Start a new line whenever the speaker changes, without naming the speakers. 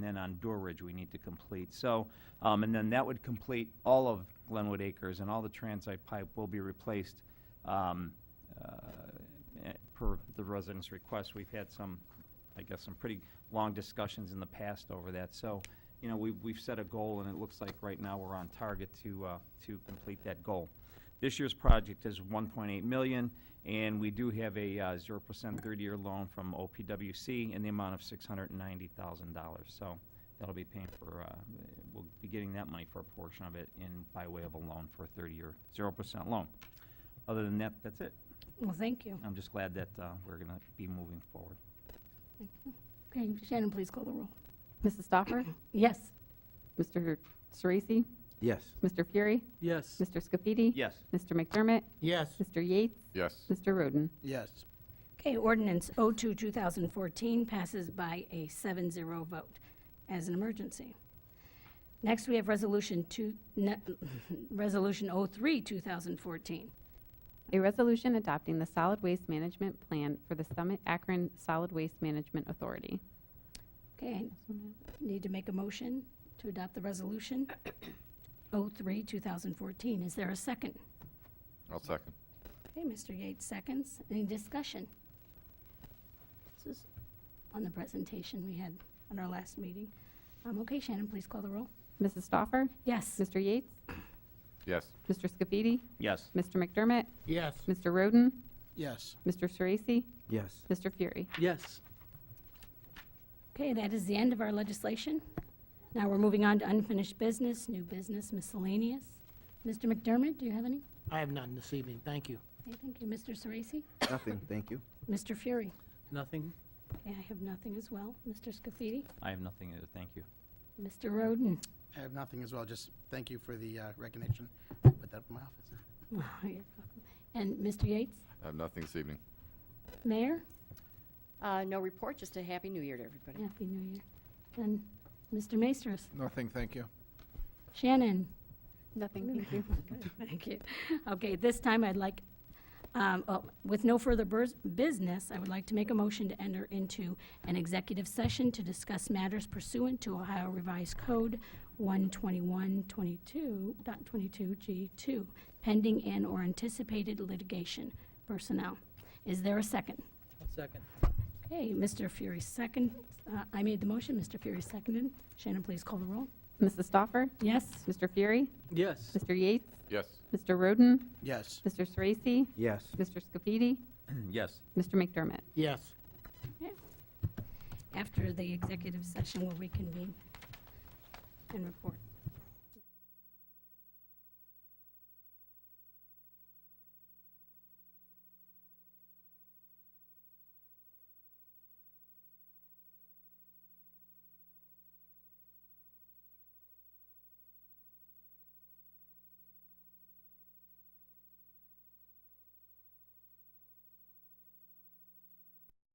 and on Doorridge we need to complete. So, um, and then that would complete all of Glenwood Acres and all the transite pipe will be replaced, um, uh, eh, per the residents' request. We've had some, I guess, some pretty long discussions in the past over that. So, you know, we've, we've set a goal, and it looks like right now we're on target to, uh, to complete that goal. This year's project is one point eight million, and we do have a uh, zero percent thirty-year loan from OPWC in the amount of six hundred and ninety thousand dollars. So that'll be paying for, uh, we'll be getting that money for a portion of it in, by way of a loan for a thirty-year, zero percent loan. Other than that, that's it.
Well, thank you.
I'm just glad that uh, we're going to be moving forward.
Okay, Shannon, please call the roll.
Mrs. Stoffer?
Yes.
Mr. Sorese?
Yes.
Mr. Fury?
Yes.
Mr. Scafidi?
Yes.
Mr. McDermott?
Yes.
Mr. Yates?
yes,
Mr. Roden?
Yes.
Okay, ordinance 02, 2014 passes by a 7-0 vote as an emergency. Next, we have Resolution 2, ne- Resolution 03, 2014.
A resolution adopting the solid waste management plan for the Summit Akron Solid Waste Management Authority.
Okay, need to make a motion to adopt the resolution 03, 2014. Is there a second?
I'll second.
Okay, Mr. Yates seconds. Any discussion? This is on the presentation we had on our last meeting. Um, okay, Shannon, please call the roll.
Mrs. Stoffer?
Yes.
Mr. Yates?
Yes,
Mr. Scafidi?
Yes.
Mr. McDermott?
Yes.
Mr. Roden?
Yes.
Mr. Sorese?
Yes.
Mr. Fury?
Yes.
Okay, that is the end of our legislation. Now we're moving on to unfinished business, new business, miscellaneous. Mr. McDermott, do you have any?
I have none this evening, thank you.
Okay, thank you. Mr. Sorese?
Nothing, thank you.
Mr. Fury?
Nothing?
Okay, I have nothing as well. Mr. Scafidi?
I have nothing to, thank you.
Mr. Roden?
I have nothing as well, just thank you for the uh, recognition. Put that up in my office.
You're welcome. And Mr. Yates?
I have nothing this evening.
Mayor?
Uh, no report, just a happy new year to everybody.
Happy New Year. And Mr. Maestros?
Nothing, thank you.
Shannon?
Nothing, thank you.
Thank you. Okay, this time I'd like, um, oh, with no further burs- business, I would like to make a motion to enter into an executive session to discuss matters pursuant to Ohio Revised Code 121.22.22G2, pending and/or anticipated litigation personnel. Is there a second?
I'll second.
Okay, Mr. Fury second. Uh, I made the motion, Mr. Fury seconded. Shannon, please call the roll.
Mrs. Stoffer?
Yes?
Mr. Fury?
Yes.
Mr. Yates?
Yes,
Mr. Roden?
Yes.
Mr. Sorese?
Yes.
Mr. Scafidi?
Yes.
Mr. McDermott?
Yes.
After the executive session, we'll reconvene and report.